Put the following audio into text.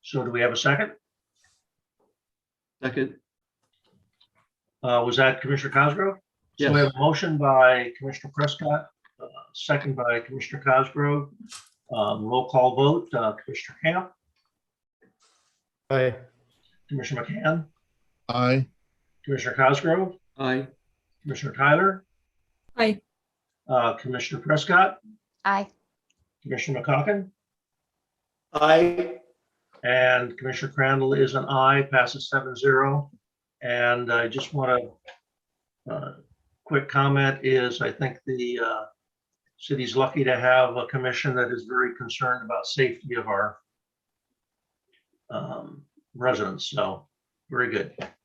So do we have a second? Second, Uh, was that Commissioner Cosgrove? So we Yes. have a motion by Commissioner Prescott, uh, second by Commissioner Cosgrove. Um, roll call vote, uh, Commissioner Camp, Aye. Commissioner McCann, Aye. Commissioner Cosgrove, aye, Commissioner Tyler. Aye. Uh, Commissioner Prescott, Aye. Commissioner McCoggin, Aye. and Commissioner Crandall is an aye, passes seven zero. And I just want to, uh, quick comment is I think the, uh, city's lucky to have a commission that is very concerned about safety of our um, residents. So very good.